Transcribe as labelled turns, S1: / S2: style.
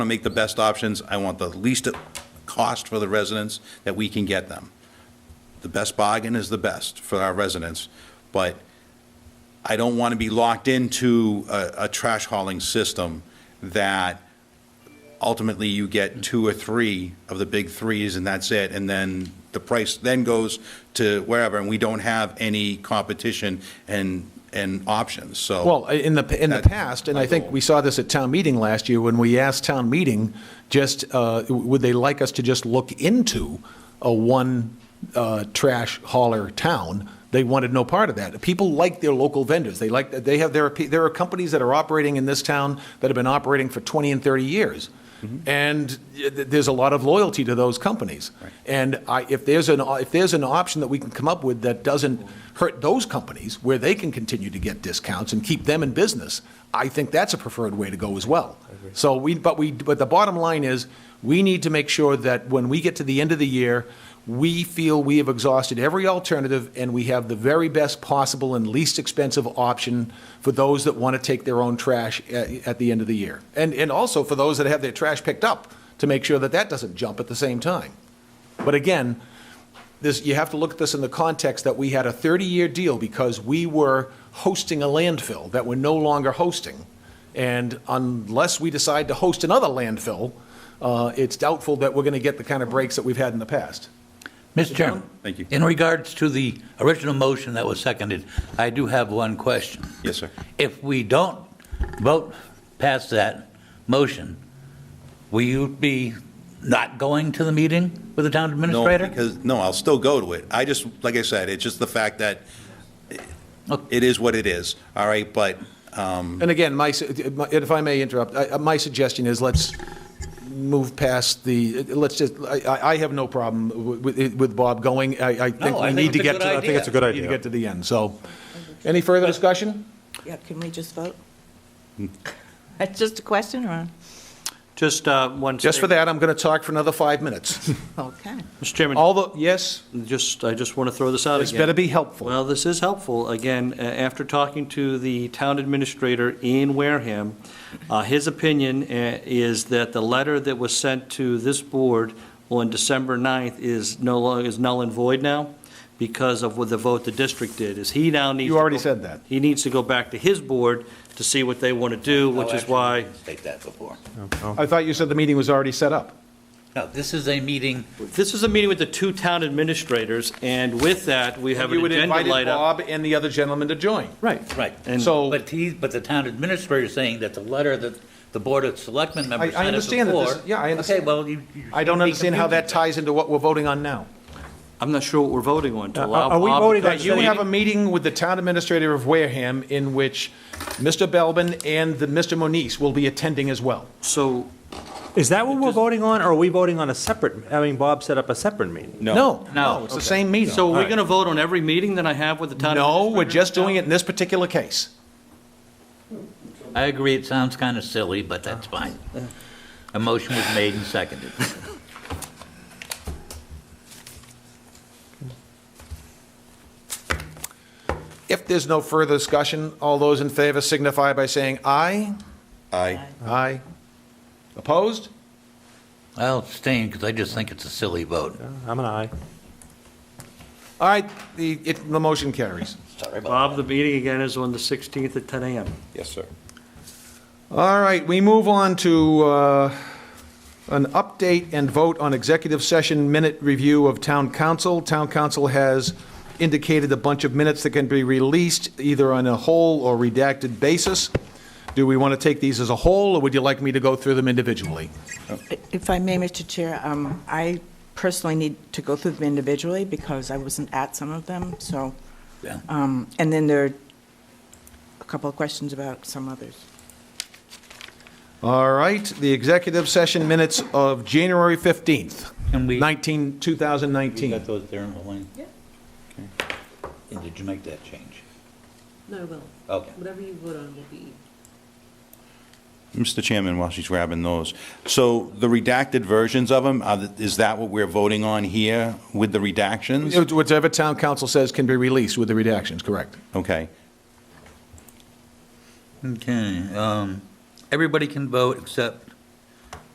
S1: to make the best options. I want the least cost for the residents that we can get them. The best bargain is the best for our residents, but I don't want to be locked into a, a trash hauling system that ultimately you get two or three of the big threes and that's it. And then the price then goes to wherever and we don't have any competition and, and options. So.
S2: Well, in the, in the
S1: That's
S2: past, and
S1: my
S2: I think
S1: goal.
S2: we saw this at town meeting last year, when we asked town meeting, just, uh, would they like us to just look into a one uh, trash hauler town? They wanted no part of that. People like their local vendors. They like, they have their, there are companies that are operating in this town that have been operating for 20 and 30 years. And th- there's a lot of loyalty to those companies. And I, if there's an, if there's an option that we can come up with that doesn't hurt those companies, where they can continue to get discounts and keep them in business, I think that's a preferred way to go as well. So we, but we, but the bottom line is, we need to make sure that when we get to the end of the year, we feel we have exhausted every alternative and we have the very best possible and least expensive option for those that want to take their own trash at, at the end of the year. And, and also for those that have their trash picked up, to make sure that that doesn't jump at the same time. But again, this, you have to look at this in the context that we had a 30-year deal because we were hosting a landfill that we're no longer hosting. And unless we decide to host another landfill, uh, it's doubtful that we're going to get the kind of breaks that we've had in the past.
S3: Mr. Chairman?
S1: Thank you.
S3: In regards to the original motion that was seconded, I do have one question.
S1: Yes, sir.
S3: If we don't vote past that motion, will you be not going to the meeting with the town
S1: No,
S3: administrator?
S1: because, no, I'll still go to it. I just, like I said, it's just the fact that
S3: Okay.
S1: it is what it is, all right? But
S2: And again, my, su- if I may interrupt, I- my suggestion is let's move past the, let's just, I- I I have no problem with with Bob going. I I think
S3: No, I
S2: we
S3: think
S2: need to
S3: it's a
S2: get
S3: good
S2: to, I think it's a good
S3: idea.
S2: idea. Need to get to the end, so. Any further discussion?
S4: Yeah, can we just vote? That's just a question, or?
S5: Just uh, one.
S2: Just for
S5: sec-
S2: that, I'm going to talk for another five minutes.
S4: Okay.
S5: Mr. Chairman,
S2: Although, yes,
S5: just, I just want to throw this out again.
S2: This better be helpful.
S5: Well, this is helpful. Again, a- after talking to the town administrator in Wareham, uh, his opinion uh, is that the letter that was sent to this board on December 9th is no longer, is null and void now because of what the vote the district did, is he now needs.
S2: You
S5: to
S2: already
S5: go-
S2: said that.
S5: He needs to go back to his board to see what they want to do, which is why.
S3: State that before.
S2: I thought you said the meeting was already set up.
S3: No, this is a meeting,
S5: This is a meeting with the two town administrators, and with that, we have
S2: You
S5: an
S2: would
S5: agenda
S2: invite
S5: light up.
S2: Bob and the other gentleman to join.
S5: Right.
S3: right.
S5: And-
S2: So-
S3: But he, but the town administrator is saying that the letter that the Board of Selectmen members
S2: I- I
S3: sent us
S2: understand that this-
S3: before.
S2: yeah, I understand.
S3: Okay, well, you. you
S2: I don't
S3: shouldn't be
S2: understand how that
S3: confused.
S2: ties into what we're voting on now.
S5: I'm not sure what we're voting on, to allow
S2: Uh, Are we
S5: Bob-
S2: voting on, you
S5: Meeting?
S2: have a meeting with the town administrator of Wareham in which Mr. Belbin and the Mr. Moniz will be attending as well.
S5: So,
S6: Is that what we're voting on, or are we voting on a separate, I mean, Bob set up a separate meeting?
S2: No,
S3: No.
S2: no, Oh, it's the same meeting.
S5: so we're going to vote on every meeting that I have with the town?
S2: No, we're
S5: administrator
S2: just doing it in this particular case.
S3: I agree, it sounds kind of silly, but that's fine. A motion was made and seconded.
S2: If there's no further discussion, all those in favor signify by saying aye.
S1: I,
S2: Aye. Opposed?
S3: I'll abstain because I just think it's a silly vote.
S6: I'm an aye.
S2: All right, the, it, the motion carries.
S3: Sorry about
S5: Bob, the meeting again is on the 16th at 10 a.m.
S1: yes, sir.
S2: All right, we move on to uh, an update and vote on executive session minute review of town council. Town council has indicated a bunch of minutes that can be released either on a whole or redacted basis. Do we want to take these as a whole, or would you like me to go through them individually?
S4: If I may, Mr. Chair, um, I personally need to go through them individually because I wasn't at some of them, so.
S3: Yeah.
S4: um, And then there are a couple of questions about some others.
S2: All right, the executive session minutes of January 15th,
S3: Can we-
S2: 19,
S3: that. You
S2: 2019.
S3: got those there in the lane? Yeah. And did you make that change?
S7: No, I will.
S3: Okay.
S7: Whatever you vote on will be
S1: Mr. Chairman, while she's grabbing those, so the redacted versions of them, is that what we're voting on here with the redactions?
S2: Whatever town council says can be released with the redactions, correct?
S1: Okay.
S3: Okay, um, everybody can vote except